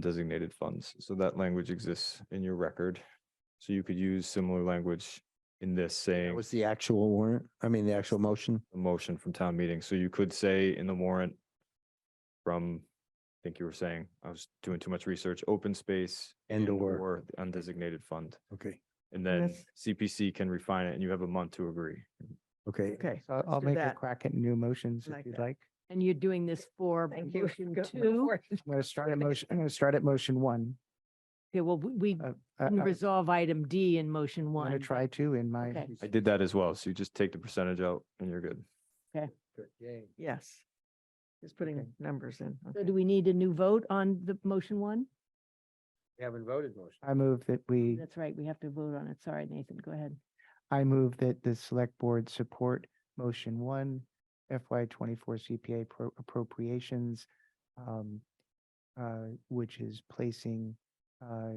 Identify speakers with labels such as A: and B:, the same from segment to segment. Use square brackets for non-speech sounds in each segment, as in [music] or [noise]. A: undesignated funds. So that language exists in your record. So you could use similar language in this
B: That
A: saying
B: was the actual warrant, I mean, the actual motion.
A: a motion from town meeting. So you could say in the warrant from, I think you were saying, I was doing too much research, open space.
B: And or.
A: the Undesignated fund.
B: Okay,
A: And then
C: that's-
A: CPC can refine it and you have a month to agree.
B: okay.
C: Okay.
D: So I'll
C: do
D: make a
C: that.
D: crack at new motions
C: Like
D: if you'd
C: that. [laughs]
D: like.
C: And you're doing this for
D: Thank you.
C: motion
D: Go
C: two?
D: for
E: [laughs]
D: I'm gonna start at motion, I'm gonna start at motion one.
C: Okay, well, we- we
D: Uh, I-
C: didn't
D: I'm
C: resolve item D in motion
D: gonna
C: one.
D: try to in my.
C: Okay.
A: I did that as well. So you just take the percentage out and you're good.
C: Yes.
D: Just putting
C: numbers in. So do we need a new vote on the motion one?
B: Haven't voted motion.
D: I move that we,
C: That's right, we have to vote on it. Sorry, Nathan, go ahead.
D: I move that the select board support motion one FY twenty-four CPA pro- appropriations. um, uh, Which is placing uh,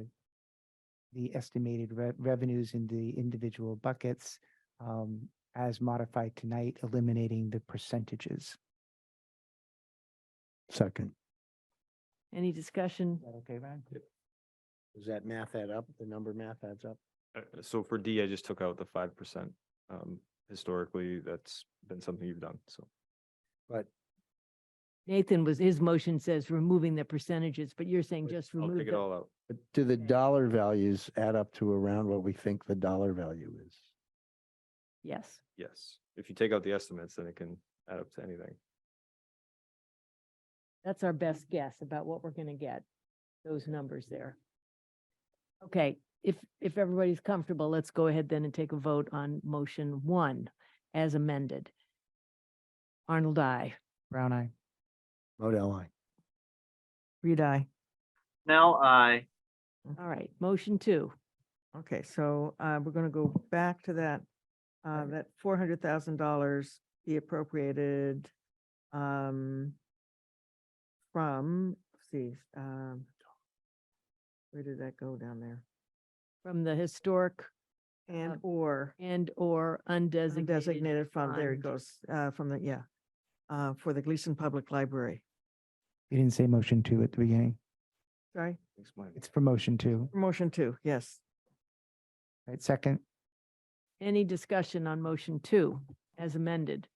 D: the estimated re- revenues in the individual buckets um, as modified tonight, eliminating the percentages.
B: Second.
C: Any discussion?
D: Is that okay, Ryan?
B: Does that math add up? The number math adds up?
A: Uh, So for D, I just took out the five percent. Um, historically, that's been something you've done. So
C: Nathan was, his motion says removing the percentages, but you're saying just
A: I'll
C: remove
A: take it
C: the
A: all out.
B: Do the dollar values add up to around what we think the dollar value is?
C: Yes,
A: Yes. If you take out the estimates, then it can add up to anything.
C: that's our best guess about what we're going to get, those numbers there. Okay, if, if everybody's comfortable, let's go ahead then and take a vote on motion one as amended. Arnold, I.
D: Brown eye.
B: Model I.
E: Reed, I.
F: Snell, I.
C: All right, motion two.
E: Okay, so uh, we're going to go back to that, uh, that four hundred thousand dollars be appropriated um, from, let's see, um, where did that go down there?
C: from the historic
E: And or
C: and or undesignated.
E: undesignated fund, there it
C: fund.
E: goes, uh, from the, yeah, uh, for the Gleason Public Library.
D: You didn't say motion two at the beginning.
E: Sorry,
A: Thanks, Mike.
D: It's for motion two,
E: motion two, yes.
D: right? Second,
C: Any discussion on motion two as amended?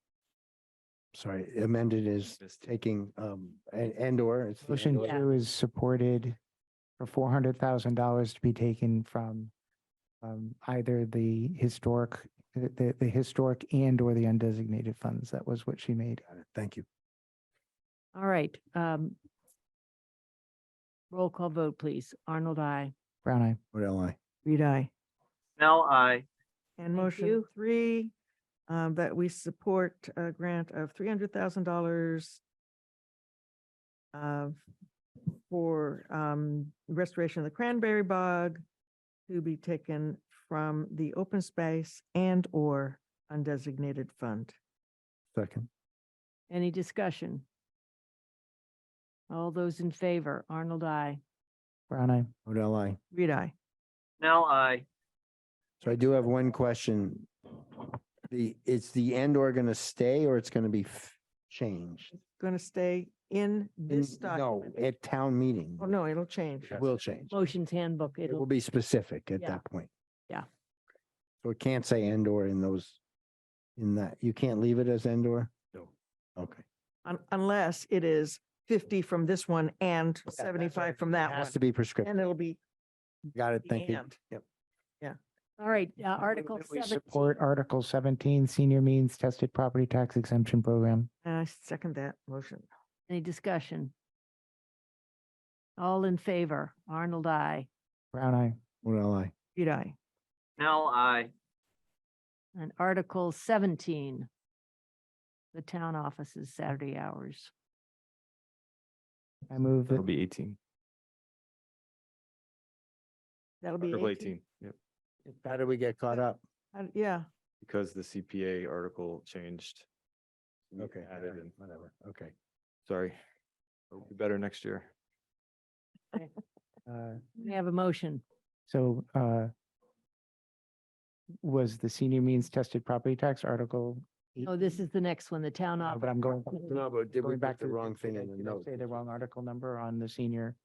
B: Sorry, amended is
A: Missed it.
B: taking, um, and, and or. it's the
D: motion
B: and/or.
C: Yeah.
D: two is supported for four hundred thousand dollars to be taken from um, either the historic, the- the, the historic and or the undesignated funds. That was what she made.
B: Got it. Thank you.
C: All right. um, Roll call vote, please. Arnold, I.
D: Brown eye.
B: Model I.
E: Reed, I.
F: Snell, I.
E: And
C: Thank
E: motion
C: you.
E: three, um, that we support a grant of three hundred thousand dollars of, for, um, restoration of the cranberry bog to be taken from the open space and or undesignated fund.
B: Second.
C: Any discussion? All those in favor, Arnold, I.
D: Brown eye.
B: Model I.
E: Reed, I.
F: Snell, I.
B: So I do have one question. The, it's the and or gonna stay or it's gonna be f- changed?
E: Going to stay in this
B: In- No,
E: document.
B: at town meeting.
E: Oh, no, it'll change.
B: It will change.
C: Motion's handbook.
B: It will
C: It'll,
B: be specific at
C: Yeah.
B: that point.
C: Yeah.
B: So it can't say and or in those, in that, you can't leave it as and or? No. Okay.
E: Un- Unless it is fifty from this one and
B: that's right.
E: seventy-five from
B: It
E: that
B: has
E: one.
B: to be prescriptive.
E: And it'll be
B: Got it.
E: the
B: Thank you.
E: and.
B: Yep.
C: all right, uh,
D: I move
C: Article
D: that we
C: seven.
D: Support Article seventeen, senior means tested property tax exemption program.
E: And I second that motion.
C: Any discussion? All in favor, Arnold, I.
D: Brown eye.
B: Model I.
E: Reed, I.
F: Snell, I.
C: And Article seventeen, the town offices Saturday hours.
D: I move
A: That'll
D: that,
A: be eighteen.
E: That'll be
A: Article
E: 18.
A: eighteen, yep.
B: How did we get caught up?
E: Uh, Yeah,
A: Because the CPA article changed. we
B: Okay.
A: Added in.
B: Whatever. Okay.
A: Sorry. It'll be better next year.
D: uh,
C: We have a motion.
D: So uh was the senior means tested property tax article?
C: Oh, this is the next one, the town
D: No,
C: office.
D: But I'm going.
B: No, but did we
D: going
B: put
D: back
B: the
D: to-
B: wrong thing
D: did I-
B: in the
D: did I
B: note?
D: Say the wrong article number on the senior